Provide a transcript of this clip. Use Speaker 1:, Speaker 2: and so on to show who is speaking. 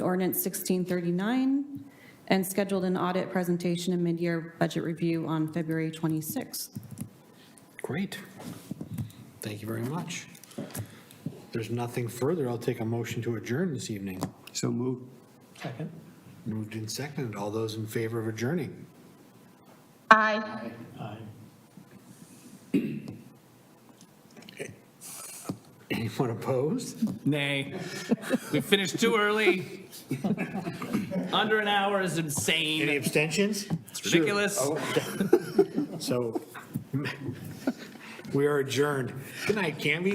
Speaker 1: ordinance 1639, and scheduled an audit presentation and mid-year budget review on February 26th.
Speaker 2: Great. Thank you very much. There's nothing further. I'll take a motion to adjourn this evening.
Speaker 3: So moved.
Speaker 2: Moved and seconded. All those in favor of adjourning?
Speaker 4: Aye.
Speaker 2: Anyone opposed?
Speaker 5: Nay. We finished too early. Under an hour is
Speaker 2: Any
Speaker 5: insane.
Speaker 2: abstentions?
Speaker 5: It's ridiculous.
Speaker 2: So we are adjourned. Good night, Camby.